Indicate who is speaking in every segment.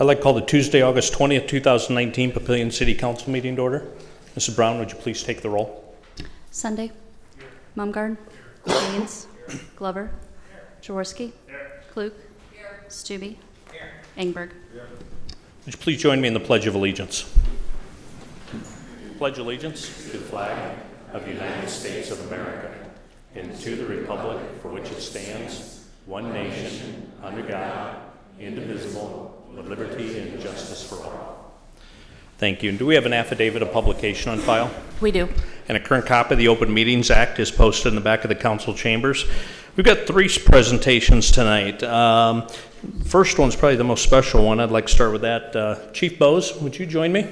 Speaker 1: I'd like to call the Tuesday, August 20th, 2019 Papillion City Council meeting to order. Mrs. Brown, would you please take the roll?
Speaker 2: Sunday. Mumgarden. Haynes. Glover. Jaworski. Klug. Stube. Engberg.
Speaker 1: Would you please join me in the Pledge of Allegiance? Pledge allegiance to the flag of the United States of America and to the republic for which it stands, one nation, under God, indivisible, with liberty and justice for all. Thank you. And do we have an affidavit of publication on file?
Speaker 2: We do.
Speaker 1: and a current copy of the Open Meetings Act is posted in the back of the council chambers. We've got three s- presentations tonight. Um, First one's probably the most special one. I'd like to start with that. Uh, Chief Bose, would you join me?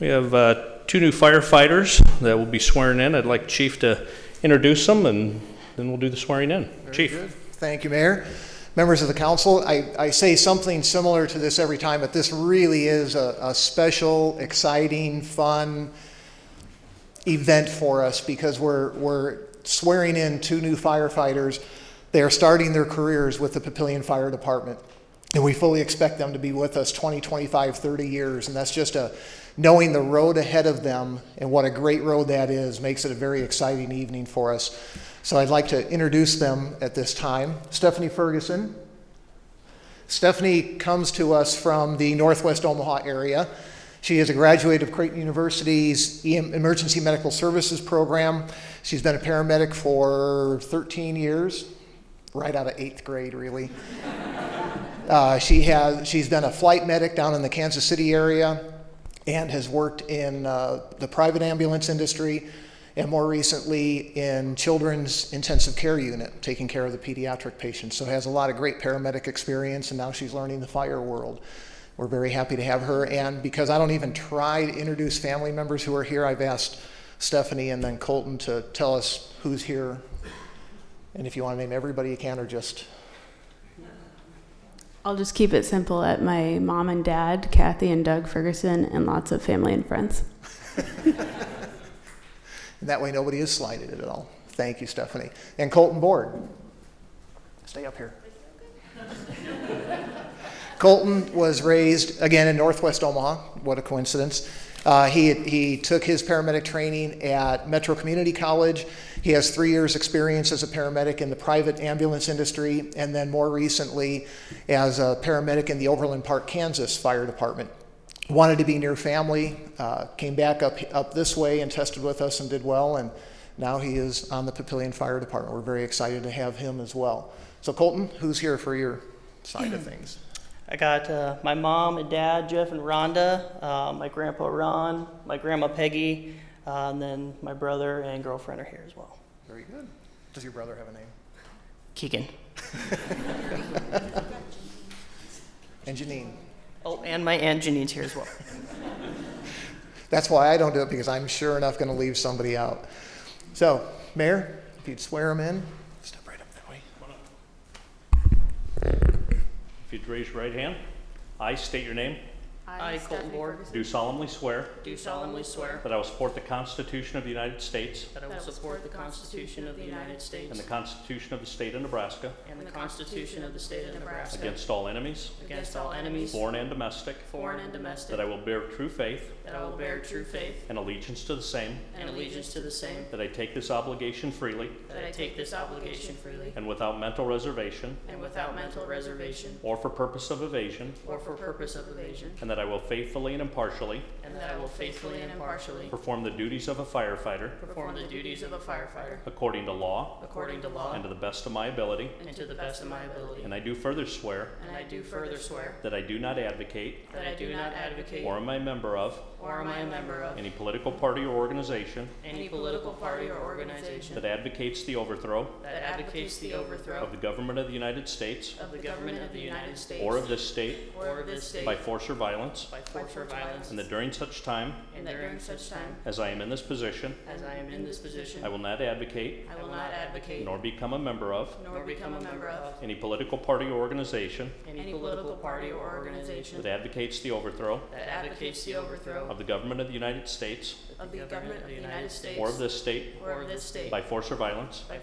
Speaker 1: We have uh, two new firefighters that will be swearing in. I'd like Chief to introduce them, and then we'll do the swearing in. Chief?
Speaker 3: Thank you, Mayor. Members of the council, I, I say something similar to this every time, but this really is a, a special, exciting, fun event for us because we're, we're swearing in two new firefighters. They are starting their careers with the Papillion Fire Department. And we fully expect them to be with us 20, 25, 30 years. And that's just a, knowing the road ahead of them and what a great road that is makes it a very exciting evening for us. So I'd like to introduce them at this time. Stephanie Ferguson. Stephanie comes to us from the Northwest Omaha area. She is a graduate of Creighton University's EM Emergency Medical Services program. She's been a paramedic for 13 years, right out of eighth grade, really. Uh, she has, she's been a flight medic down in the Kansas City area and has worked in uh, the private ambulance industry and more recently in children's intensive care unit, taking care of the pediatric patients. So has a lot of great paramedic experience and now she's learning the fire world. We're very happy to have her. And because I don't even try to introduce family members who are here, I've asked Stephanie and then Colton to tell us who's here. And if you want to name everybody, you can, or just
Speaker 4: I'll just keep it simple at my mom and dad, Kathy and Doug Ferguson, and lots of family and friends.
Speaker 3: And that way, nobody is slighted at all. Thank you, Stephanie. And Colton Board. Stay up here. Colton was raised, again, in northwest Omaha. What a coincidence. Uh, he, he took his paramedic training at Metro Community College. He has three years' experience as a paramedic in the private ambulance industry, and then more recently as a paramedic in the Overland Park, Kansas Fire Department wanted to be near family, uh, came back up, up this way and tested with us and did well, and now he is on the Papillion Fire Department. We're very excited to have him as well. So Colton, who's here for your side of things?
Speaker 5: I got uh, my mom and dad, Jeff and Rhonda, uh, my grandpa Ron, my grandma Peggy, uh, and then my brother and girlfriend are here as well.
Speaker 3: Very good. Does your brother have a name?
Speaker 5: Keegan.
Speaker 3: And Janine.
Speaker 5: Oh, and my aunt Janine's here as well.
Speaker 3: That's why I don't do it, because I'm sure enough going to leave somebody out. So, Mayor, if you'd swear him in. Step right up that way.
Speaker 1: If you'd raise your right hand. I state your name.
Speaker 5: I, Colton Board,
Speaker 1: Do solemnly swear
Speaker 5: do solemnly swear
Speaker 1: that I will support the Constitution of the United States
Speaker 5: that I will support the Constitution of the United
Speaker 1: and
Speaker 5: States
Speaker 1: the Constitution of the State of Nebraska
Speaker 5: and the Constitution of the State of Nebraska
Speaker 1: against all enemies,
Speaker 5: against all enemies,
Speaker 1: foreign and domestic,
Speaker 5: foreign and domestic,
Speaker 1: That I will bear true faith
Speaker 5: that I will bear true faith
Speaker 1: and allegiance to the same.
Speaker 5: and allegiance to the same,
Speaker 1: That I take this obligation freely
Speaker 5: that I take this obligation freely
Speaker 1: and without mental reservation
Speaker 5: and without mental reservation
Speaker 1: or for purpose of evasion.
Speaker 5: or for purpose of evasion,
Speaker 1: And that I will faithfully and impartially
Speaker 5: and that I will faithfully and impartially
Speaker 1: perform the duties of a firefighter
Speaker 5: perform the duties of a firefighter
Speaker 1: according to law
Speaker 5: according to law
Speaker 1: and to the best of my ability.
Speaker 5: and to the best of my ability.
Speaker 1: And I do further swear
Speaker 5: And I do further swear
Speaker 1: that I do not advocate
Speaker 5: that I do not advocate
Speaker 1: or am a member of
Speaker 5: or am I a member of
Speaker 1: any political party or organization
Speaker 5: any political party or organization
Speaker 1: that advocates the overthrow
Speaker 5: that advocates the
Speaker 1: of
Speaker 5: overthrow
Speaker 1: the government of the United States
Speaker 5: of the government of the United States
Speaker 1: or of this state
Speaker 5: or of this state
Speaker 1: by force or violence.
Speaker 5: by force or violence,
Speaker 1: And that during such time
Speaker 5: and that during such time
Speaker 1: as I am in this position,
Speaker 5: as I am in this position,
Speaker 1: I will not advocate
Speaker 5: I will not advocate
Speaker 1: nor become a member of
Speaker 5: nor become a member of
Speaker 1: any political party or organization
Speaker 5: any political party or organization
Speaker 1: that advocates the overthrow
Speaker 5: that advocates the overthrow
Speaker 1: of the government of the United States
Speaker 5: of the government of the United States
Speaker 1: or of this state
Speaker 5: or of this state
Speaker 1: by force or violence.
Speaker 5: by